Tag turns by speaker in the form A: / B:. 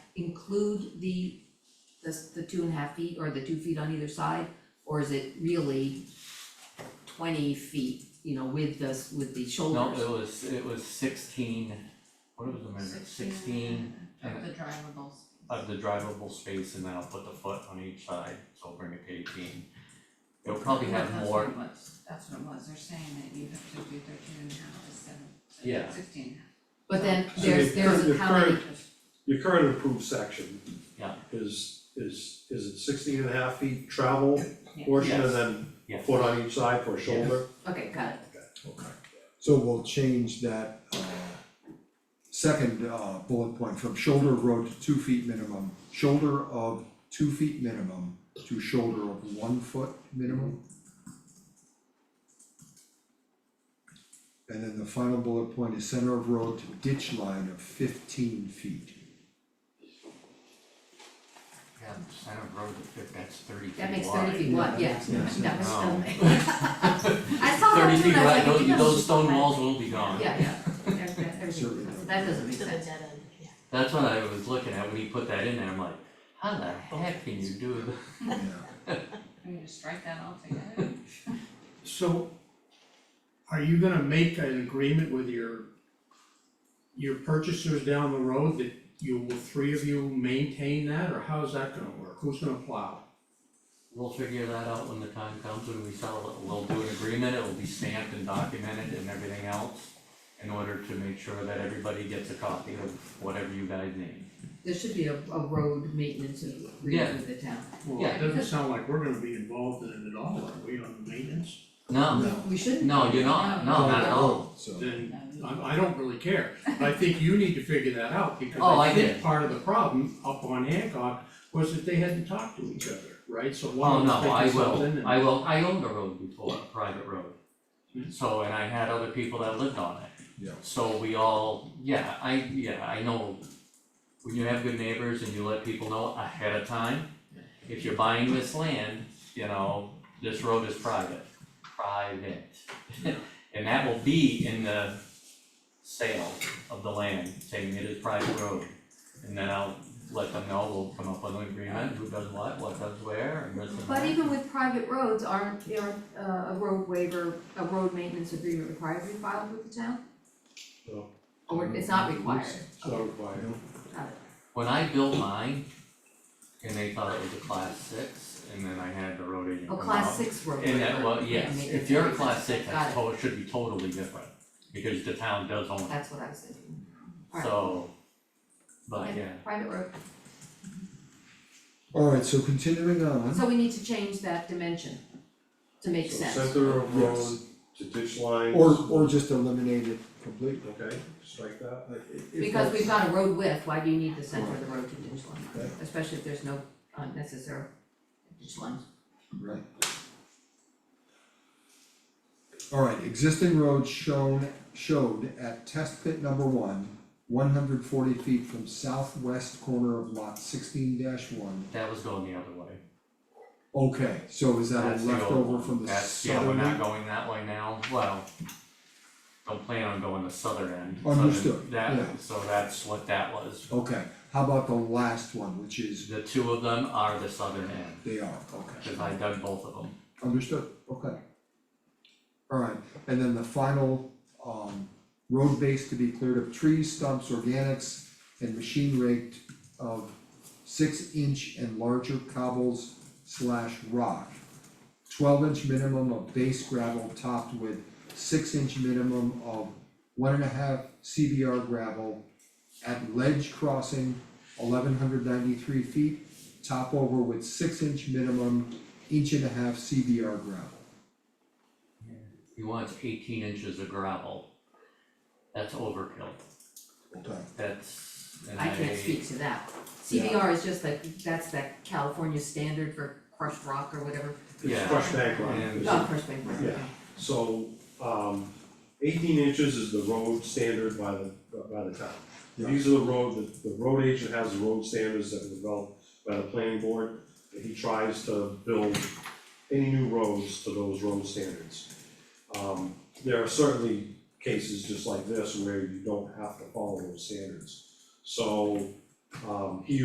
A: include the, the, the two and a half feet or the two feet on either side? Or is it really twenty feet, you know, with the, s- with the
B: No,
A: shoulders?
B: it was, it was sixteen, what was the measure, sixteen
C: Of the drivables.
B: of the drivable space and then I'll put the foot on each side, so I'll bring it to eighteen. It'll probably
C: No,
B: have more,
C: That's what it was, that's what it was, they're saying that you have to do thirteen and a half to seven,
B: Yeah.
C: so sixteen.
A: But then
C: So
A: there's,
D: the
A: there's
D: current-
A: a
D: the
A: how many,
D: current- Your current approved section.
B: Yeah.
D: Is, is, is it sixteen and a half feet travel portion
B: Yes.
D: and then a
B: Yes.
D: foot on each side for a shoulder?
A: okay, got it,
E: Okay, so we'll change that uh second uh bullet point from shoulder of road to two feet minimum, shoulder of two feet minimum to shoulder of one foot minimum. And then the final bullet point is center of road to ditch line of fifteen feet.
B: yeah, the center of road, if that's thirty feet wide.
A: that makes thirty feet wide, yeah,
E: Yeah, that makes
A: that was
B: sense.
A: stomach. I saw that
B: Thirty
A: too,
B: feet
A: and I was
B: wide,
A: like,
B: those,
A: you know,
B: those stone walls will be gone.
A: Yeah, yeah, that, that, everything,
E: Certainly.
A: that doesn't make
F: To the
A: sense,
F: dead end, yeah.
B: That's what I was looking at, when he put that in there, I'm like, how the heck can you do that?
E: Yeah,
C: We need to strike that altogether.
G: So are you gonna make an agreement with your your purchasers down the road that you will, three of you maintain that, or how's that gonna work? Who's gonna plow?
B: We'll figure that out when the time comes, when we sell it, we'll do an agreement, it'll be stamped and documented and everything else in order to make sure that everybody gets a copy of whatever you guys need.
A: there should be a, a road maintenance
B: Yeah.
A: agreement with the town.
G: Well,
B: Yeah.
G: it doesn't sound like we're gonna be involved in it at all, are we, on the maintenance?
B: No,
E: no,
A: We shouldn't,
B: no, you're not, no, not at all.
E: so.
G: Then I I don't really care, I think you need to figure that out, because
B: Oh,
G: I
B: I
G: think
B: did.
G: part of the problem up on Hancock was that they hadn't talked to each other, right? So
B: Oh,
G: one
B: no, I
G: was thinking something
B: will,
G: and.
B: I will, I owned a road before, a private road.
G: Hmm.
B: So, and I had other people that lived on it.
E: Yeah.
B: So we all, yeah, I, yeah, I know, when you have good neighbors and you let people know ahead of time, if you're buying this land, you know, this road is private, private. And that will be in the sale of the land, saying it is private road. And then I'll let them know, we'll come up with an agreement, who does what, what does where, and this and that.
A: But even with private roads, aren't, aren't uh, a road waiver, a road maintenance agreement required to be filed with the town?
D: No.
A: Or it's not required?
D: So by,
B: When I built mine, and they thought it was a class six, and then I had the road
A: A
B: agent come
A: Oh, class
B: out.
A: six road waiver?
B: And that, well, yes,
A: maintenance
B: if you're a
A: agreement.
B: class six,
A: Got
B: that's
A: it.
B: to- should be totally different, because the town does own it,
A: That's what I was thinking. Alright.
B: so. But
A: Okay,
B: yeah,
A: Private road,
E: Alright, so continuing on.
A: so we need to change that dimension to
D: so
A: make sense.
D: center of road
E: Yes.
D: to ditch lines.
E: Or or just eliminate it completely.
D: Okay, strike that.
E: Like, i- if
A: Because we've
E: that's-
A: got a road width, why do you need the center of the road to ditch line,
E: Okay.
A: especially if there's no unnecessary ditch lines?
E: Right. Alright, existing road shown, showed at test pit number one, one hundred forty feet from southwest corner of lot sixteen one.
B: that was going the other way,
E: Okay, so is that
B: that's
E: a
B: the old
E: leftover
B: one.
E: from the
B: that's, yeah, we're
E: southern?
B: not going that way now, well. Don't plan on going the southern end, so
E: Understood, yeah.
B: that, so that's what that was,
E: Okay, how about the last one, which is,
B: the two of them are the southern end,
E: they are,
B: cause
E: okay,
B: I dug both of them.
E: understood, okay. Alright, and then the final, um, road base to be cleared of trees, stumps, organics, and machine raked of six inch and larger cobbles slash rock. Twelve inch minimum of base gravel topped with six inch minimum of one and a half CBR gravel. At ledge crossing, eleven hundred ninety-three feet, top over with six inch minimum, inch and a half CBR gravel.
B: He wants eighteen inches of gravel. That's overkill,
E: Okay.
B: that's, and I.
A: I can't speak to that. CBR is just like, that's that California standard for crushed rock or whatever,
D: It's
B: Yeah.
D: crushed bank rock.
B: And-
A: not crushed bank rock,
D: Yeah.
A: okay.
D: So, um, eighteen inches is the road standard by the, by the town.
E: Yeah.
D: These are the road, the, the road agent has the road standards that were developed by the planning board, and he tries to build any new roads to those road standards. Um, there are certainly cases just like this where you don't have to follow those standards. So, um, he